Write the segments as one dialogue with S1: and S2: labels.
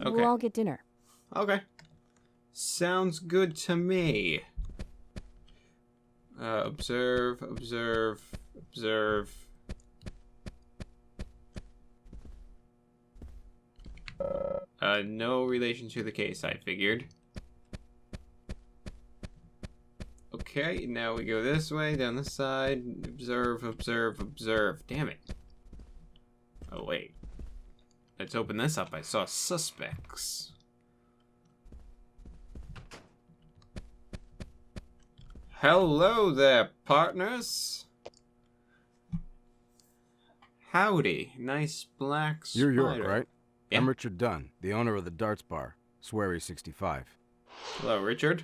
S1: Okay.
S2: We'll all get dinner.
S1: Okay. Sounds good to me. Uh, observe, observe, observe. Uh, no relation to the case, I figured. Okay, now we go this way, down this side. Observe, observe, observe. Damn it. Oh, wait. Let's open this up. I saw suspects. Hello there, partners. Howdy, nice black spider.
S3: You're York, right?
S1: Yeah.
S3: I'm Richard Dunn, the owner of the Darts Bar, Swery 65.
S1: Hello, Richard.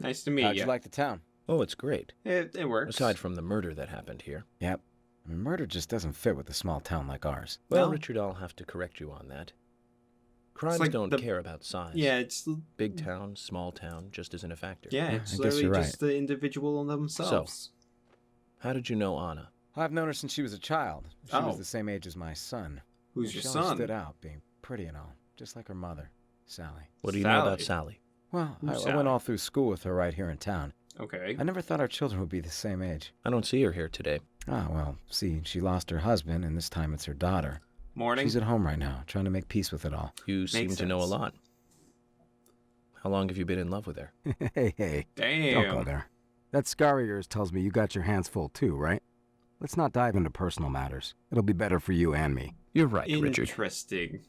S1: Nice to meet
S4: How'd
S1: you.
S4: you like the town?
S5: Oh, it's great.
S1: it, it works.
S5: Aside from the murder that happened here.
S4: Yep. I mean, murder just doesn't fit with a small town like ours.
S5: Well,
S1: No.
S5: Richard, I'll have to correct you on that. Crimes
S1: like
S5: don't
S1: the-
S5: care about size.
S1: yeah, it's
S5: Big town, small town, just isn't a factor.
S1: yeah,
S4: I
S1: it's
S4: guess
S1: literally
S4: you're right.
S1: just the individual themselves.
S5: How did you know Anna?
S4: I've known her since she was a child. She
S1: Oh.
S4: was the same age as my son.
S1: Who's
S4: And
S1: your
S4: she always
S1: son?
S4: stood out, being pretty and all, just like her mother, Sally.
S5: What do you know about Sally?
S4: Well,
S1: Who's
S4: I, I
S1: Sally?
S4: went all through school with her right here in town.
S1: Okay.
S4: I never thought our children would be the same age.
S5: I don't see her here today.
S4: Ah, well, see, she lost her husband, and this time it's her daughter.
S1: Morning.
S4: She's at home right now, trying to make peace with it all.
S5: You seem to know a
S1: sense.
S5: lot. How long have you been in love with her?
S3: hey, hey,
S4: Oh,
S3: don't go
S1: Damn.
S3: there. That scar of yours tells me you got your hands full too, right? Let's not dive into personal matters. It'll be better for you and me.
S5: You're right, Richard.
S1: Interesting.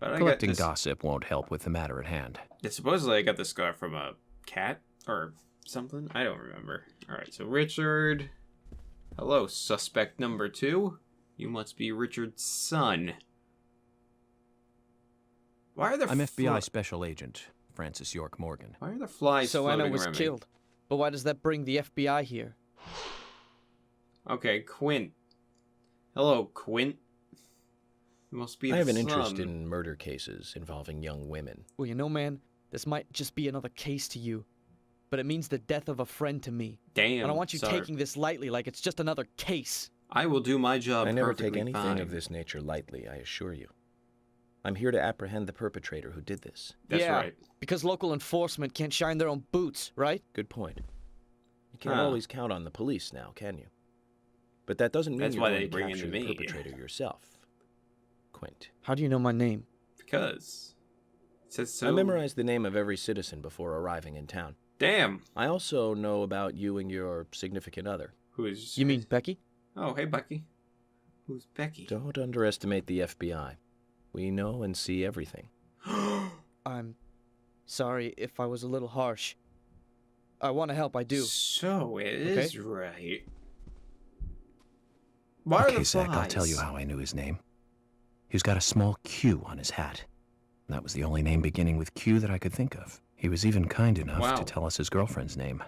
S1: But I got
S5: Collecting
S1: this,
S5: gossip won't help with the matter at hand.
S1: Yeah, supposedly I got the scar from a cat or something. I don't remember. All right, so Richard. Hello, suspect number two. You must be Richard's son. Why are there?
S5: I'm FBI
S1: fl-
S5: Special Agent Francis York Morgan.
S1: Why are the flies?
S6: so
S1: floating
S6: Anna was
S1: around me?
S6: killed. But why does that bring the FBI here?
S1: Okay, Quint. Hello, Quint. You must be.
S5: I
S1: the
S5: have an interest
S1: son.
S5: in murder cases involving young women.
S6: Well, you know, man, this might just be another case to you, but it means the death of a friend to me.
S1: Damn.
S6: and I want you
S1: sir.
S6: taking this lightly like it's just another case.
S1: I will do my job.
S5: I never take
S1: perfectly
S5: anything
S1: fine.
S5: of this nature lightly, I assure you. I'm here to apprehend the perpetrator who did this.
S1: That's
S6: Yeah.
S1: right.
S6: Because local enforcement can't shine their own boots, right?
S5: Good point. You can't
S1: Huh.
S5: always count on the police now, can you? But that doesn't mean
S1: That's
S5: you're
S1: why
S5: going
S1: they
S5: to
S1: bring in
S5: capture
S1: the
S5: the
S1: meat.
S5: perpetrator yourself. Quint.
S6: How do you know my name?
S1: Because. It says so.
S5: I memorized the name of every citizen before arriving in town.
S1: Damn.
S5: I also know about you and your significant other.
S1: Who is?
S6: You mean Becky?
S1: Oh, hey, Bucky. Who's Becky?
S5: Don't underestimate the FBI. We know and see everything.
S6: I'm sorry if I was a little harsh. I want to help, I do.
S1: So it is
S6: Okay.
S1: right. Why are
S5: okay,
S1: the
S5: Zach,
S1: flies?
S5: I'll tell you how I knew his name. He's got a small Q on his hat. And that was the only name beginning with Q that I could think of. He was even kind enough
S1: Wow.
S5: to tell us his girlfriend's name.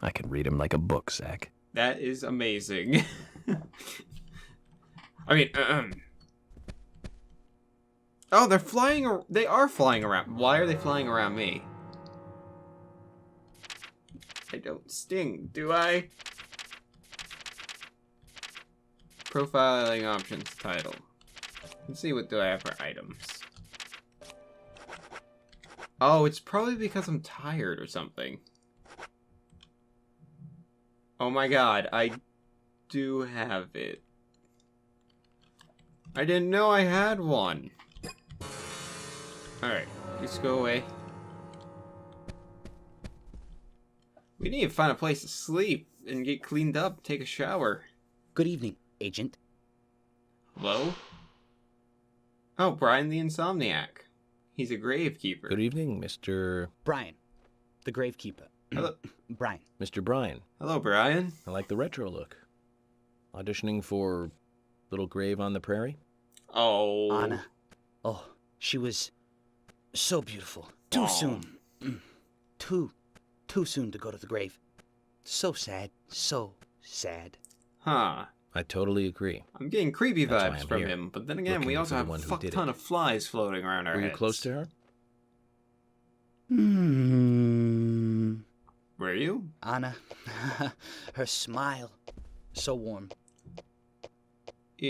S5: I can read him like a book, Zach.
S1: That is amazing. I mean, um. Oh, they're flying. ar- They are flying around. Why are they flying around me? I don't sting, do I? Profiling options title. Let's see what do I have for items. Oh, it's probably because I'm tired or something. Oh my god, I do have it. I didn't know I had one. Alright, just go away. We need to find a place to sleep and get cleaned up, take a shower.
S7: Good evening, Agent.
S1: Hello? Oh, Brian the Insomniac. He's a gravekeeper.
S5: Good evening, Mr.
S7: Brian, the gravekeeper.
S1: Hello,
S7: Brian,
S5: Mr. Bryan.
S1: hello, Brian.
S5: I like the retro look. Auditioning for Little Grave on the Prairie?
S1: Oh.
S7: Anna. Oh, she was so beautiful. Too
S1: Aw.
S7: soon. Mm. Too, too soon to go to the grave. So sad. So sad.
S1: Huh.
S5: I totally agree.
S1: I'm getting creepy
S5: That's why
S1: vibes
S5: I'm
S1: from
S5: here,
S1: him, but then again, we also
S5: looking for the
S1: have a
S5: one who
S1: fuck
S5: did
S1: ton
S5: it.
S1: of flies floating around our
S5: Were you
S1: heads.
S5: close to her?
S7: Hmm.
S1: Were you?
S7: Anna, her smile, so warm,